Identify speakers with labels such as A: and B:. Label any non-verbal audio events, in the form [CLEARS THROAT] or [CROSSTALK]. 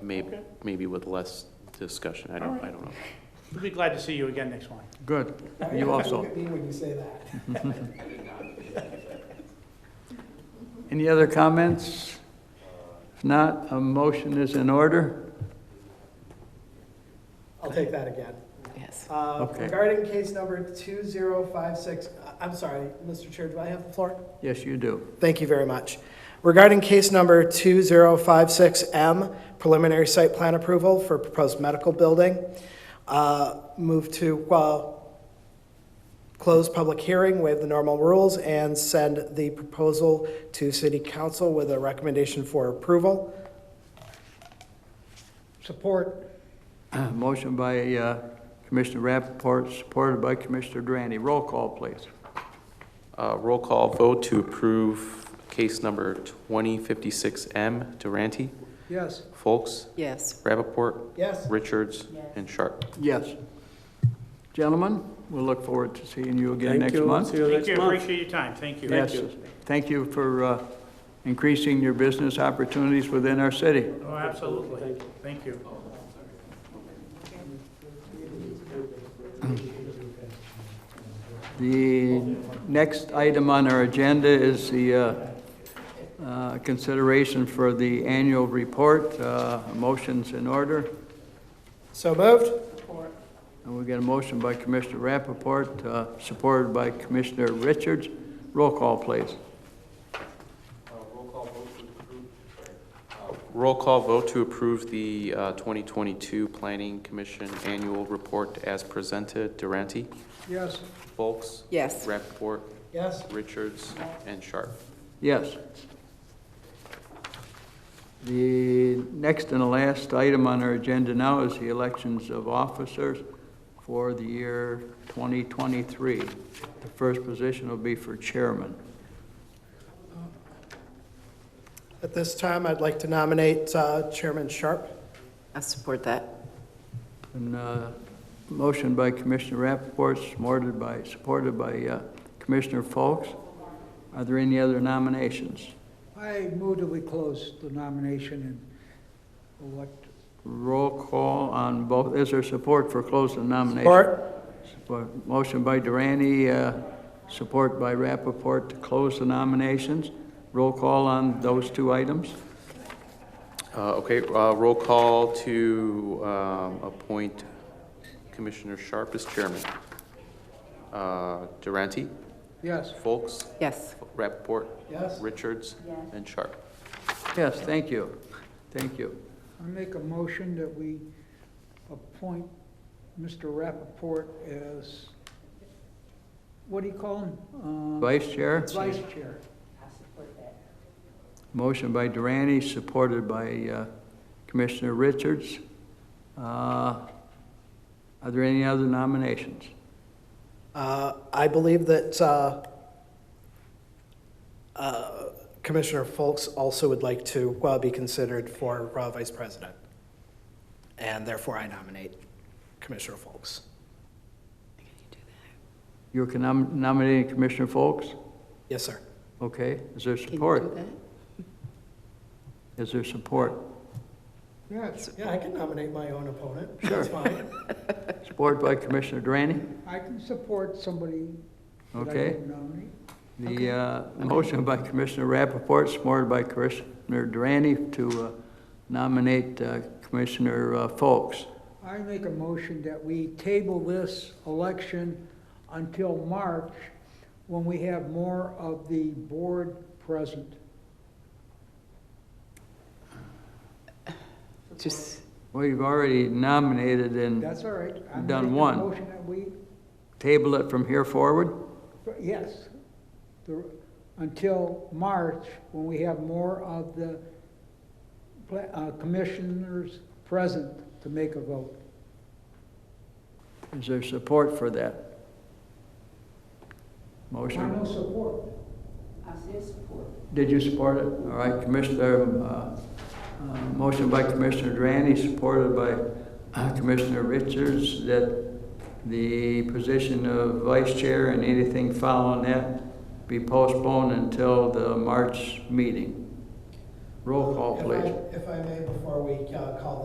A: maybe,
B: Okay.
A: uh, maybe with less discussion, I
B: All
A: don't,
B: right.
A: I don't know.
B: We'll be glad to see you again next one.
C: Good, you
D: Look
C: also.
D: at me when you say that.
C: Any other comments? If not, a motion is in order.
D: I'll take that again.
E: Yes.
D: Uh,
C: Okay.
D: Regarding case number 2056, I- I'm sorry, Mr. Chair, do I have the floor?
C: Yes, you do. [CLEARS THROAT]
D: Thank you very much. Regarding case number 2056M, preliminary site plan approval for proposed medical building, uh, move to uh, close public hearing, waive the normal rules, and send the proposal to city council with a recommendation for approval.
C: Support. Motion by uh, Commissioner Rappaport, supported by Commissioner Drani. Roll call, please.
A: Uh, Roll call vote to approve case number 2056M, Durante,
C: Yes.
A: Folks,
E: Yes.
A: Rappaport,
D: Yes.
A: Richards, and Sharp.
C: Yes. Gentlemen, we'll look forward to seeing you again next month.
F: See you
B: Thank you,
F: next month.
B: appreciate your time, thank you.
C: Yes. Thank you for uh, increasing your business opportunities within our city.
B: Oh, absolutely, thank you.
C: The next item on our agenda is the uh, uh, consideration for the annual report. Uh, Motion's in order.
D: So moved?
C: And we get a motion by Commissioner Rappaport, uh, supported by Commissioner Richards. Roll call, please.
A: Roll call vote to approve the uh, 2022 Planning Commission Annual Report as presented, Durante,
C: Yes.
A: Folks,
E: Yes.
A: Rappaport,
D: Yes.
A: Richards, and Sharp.
C: Yes. The next and the last item on our agenda now is the elections of officers for the year 2023. The first position will be for chairman.
D: At this time, I'd like to nominate uh, Chairman Sharp.
E: I support that.
C: And, uh, motion by Commissioner Rappaport, supported by, supported by uh, Commissioner Folks. Are there any other nominations?
F: I move that we close the nomination and what
C: Roll call on both, is there support for closing nomination?
D: Support?
C: Support. Motion by Durante, uh, support by Rappaport to close the nominations. Roll call on those two items?
A: Uh, Okay, uh, roll call to um, appoint Commissioner Sharp as chairman. Uh, Durante,
F: Yes.
A: Folks,
E: Yes.
A: Rappaport,
D: Yes.
A: Richards, and Sharp.
C: Yes, thank you, thank you.
F: I make a motion that we appoint Mr. Rappaport as, what do you call him? Uh,
C: Vice Chair?
F: Vice Chair.
C: Motion by Durante, supported by uh, Commissioner Richards. Uh, Are there any other nominations?
D: Uh, I believe that uh, uh, Commissioner Folks also would like to uh, be considered for uh, Vice President. And therefore, I nominate Commissioner Folks.
C: You're con- nom- nominating Commissioner Folks?
D: Yes, sir.
C: Okay, is there
E: Can you
C: support?
E: do that?
C: Is there support?
F: Yes,
D: Yeah, I can nominate my own opponent.
C: That's
D: fine.
C: Support by Commissioner Durante?
F: I can support somebody that I
C: Okay.
F: didn't nominate.
C: The uh, motion by Commissioner Rappaport, supported by Commissioner Durante to uh, nominate uh, Commissioner uh, Folks.
F: I make a motion that we table this election until March, when we have more of the board present.
E: Just,
C: We've already nominated and
F: That's all right. I'm
C: Mm. Done
F: making a
C: one.
F: Motion that we,
C: tabled it from here forward?
F: yes, the- until March, when we have more of the pla- uh, commissioners present to make a vote.
C: Is there support for that?
F: Final
C: Motion,
F: support.
C: did you support it? All right, Commissioner, uh, uh, motion by Commissioner Durante, supported by uh, Commissioner Richards, that the position of vice chair and anything following that be postponed until the March meeting.
G: Roll call,
D: If I-
G: please.
D: If I may, before we uh, call